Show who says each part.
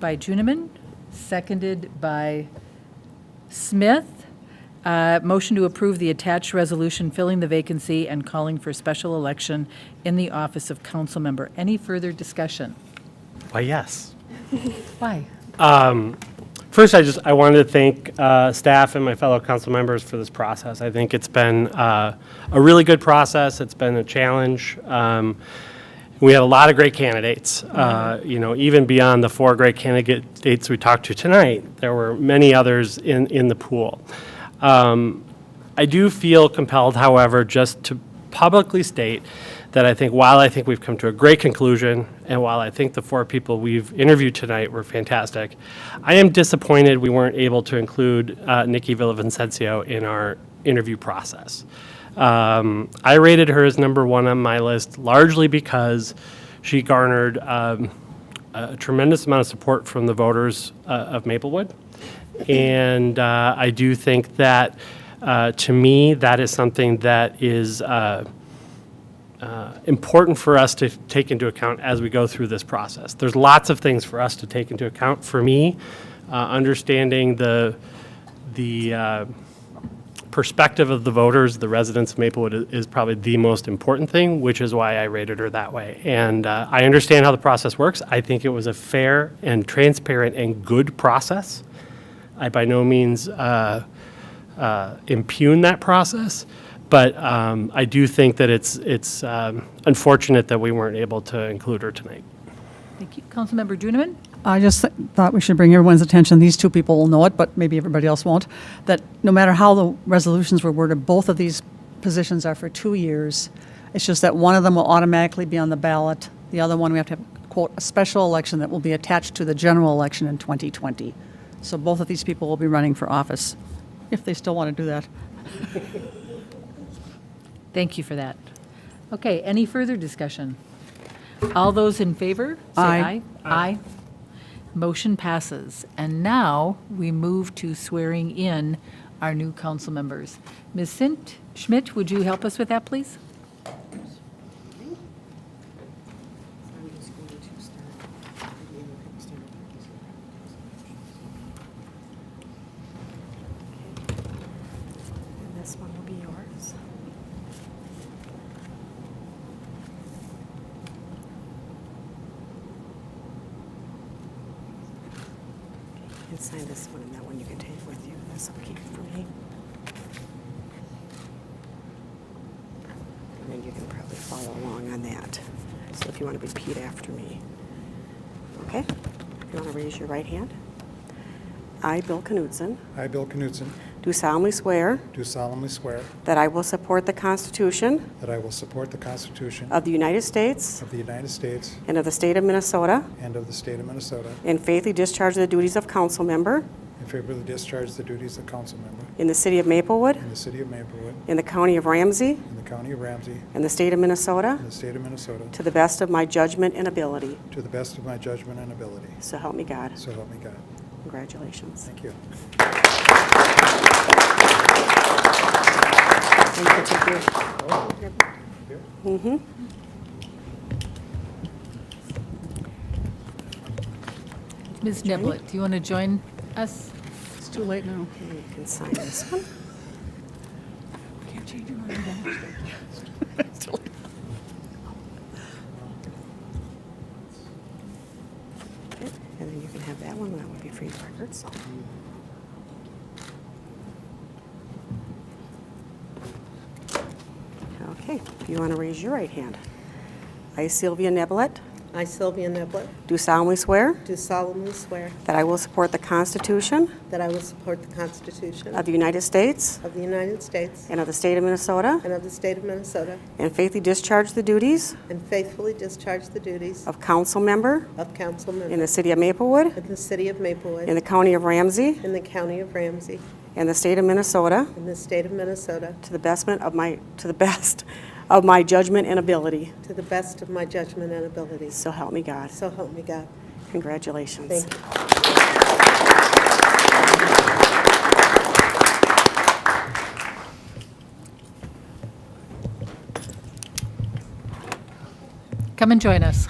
Speaker 1: by Juniman, seconded by Smith. Uh, Motion to approve the attached resolution filling the vacancy and calling for special election in the office of council member. Any further discussion?
Speaker 2: Why, yes.
Speaker 1: Why?
Speaker 2: First, I just, I wanted to thank uh, staff and my fellow council members for this process. I think it's been uh, a really good process. It's been a challenge. Um, We had a lot of great candidates. Uh, You know, even beyond the four great candidates we talked to tonight, there were many others in, in the pool. Um, I do feel compelled, however, just to publicly state that I think while I think we've come to a great conclusion, and while I think the four people we've interviewed tonight were fantastic, I am disappointed we weren't able to include uh, Nikki Villavicencio in our interview process. Um, I rated her as number one on my list largely because she garnered um, a tremendous amount of support from the voters uh, of Maplewood. And uh, I do think that, uh, to me, that is something that is uh, uh, important for us to take into account as we go through this process. There's lots of things for us to take into account. For me, uh, understanding the, the uh, perspective of the voters, the residents of Maplewood, i- is probably the most important thing, which is why I rated her that way. And uh, I understand how the process works. I think it was a fair and transparent and good process. I by no means uh, uh, impugn that process, but um, I do think that it's it's um, unfortunate that we weren't able to include her tonight.
Speaker 1: Thank you. Councilmember Juniman?
Speaker 3: I just th- thought we should bring everyone's attention, these two people will know it, but maybe everybody else won't, that no matter how the resolutions were worded, both of these positions are for two years. It's just that one of them will automatically be on the ballot. The other one, we have to have, quote, a special election that will be attached to the general election in 2020. So both of these people will be running for office, if they still want to do that.
Speaker 1: Thank you for that. Okay, any further discussion? All those in favor, say aye.
Speaker 3: Aye.
Speaker 1: Aye. Motion passes. And now we move to swearing in our new council members. Ms. Sint Schmidt, would you help us with that, please?
Speaker 4: And this one will be yours. You can sign this one, and that one you can take with you. This will keep for me. And then you can probably follow along on that. So if you want to repeat after me. Okay? If you want to raise your right hand. I, Bill Knudsen,
Speaker 5: I, Bill Knutson,
Speaker 4: do solemnly swear
Speaker 5: do solemnly swear
Speaker 4: That I will support the Constitution
Speaker 5: that I will support the Constitution
Speaker 4: of the United States
Speaker 5: of the United States
Speaker 4: and of the State of Minnesota,
Speaker 5: and of the State of Minnesota,
Speaker 4: and faithfully discharge the duties of council member
Speaker 5: and favorably discharge the duties of council member
Speaker 4: in the City of Maplewood,
Speaker 5: in the City of Maplewood,
Speaker 4: in the County of Ramsey,
Speaker 5: in the County of Ramsey,
Speaker 4: and the State of Minnesota,
Speaker 5: in the State of Minnesota,
Speaker 4: to the best of my judgment and ability.
Speaker 5: to the best of my judgment and ability.
Speaker 4: So help me God.
Speaker 5: So help me God.
Speaker 4: Congratulations.
Speaker 5: Thank you.
Speaker 4: And you can take your- Mhm.
Speaker 1: Ms. Niblett, do you want to join us?
Speaker 3: It's too late now.
Speaker 4: And You can sign this one. Okay, And then you can have that one, that would be for your records. Okay, if you want to raise your right hand. I, Sylvia Nebelet,
Speaker 6: I, Sylvia Niblett,
Speaker 4: do solemnly swear
Speaker 6: do solemnly swear
Speaker 4: that I will support the Constitution
Speaker 6: that I will support the Constitution
Speaker 4: of the United States
Speaker 6: of the United States
Speaker 4: and of the State of Minnesota,
Speaker 6: and of the State of Minnesota,
Speaker 4: and faithfully discharge the duties
Speaker 6: and faithfully discharge the duties
Speaker 4: of council member
Speaker 6: of council
Speaker 4: in
Speaker 6: member
Speaker 4: the City of Maplewood,
Speaker 6: in the City of
Speaker 4: in
Speaker 6: Maplewood,
Speaker 4: the County of Ramsey,
Speaker 6: in the County of Ramsey,
Speaker 4: and the State of Minnesota,
Speaker 6: in the State of Minnesota,
Speaker 4: to the bestment of my, to the best of my judgment and ability.
Speaker 6: to the best of my judgment and abilities.
Speaker 4: So help me God.
Speaker 6: So help me God.
Speaker 4: Congratulations.
Speaker 6: Thank you.
Speaker 1: Come and join us.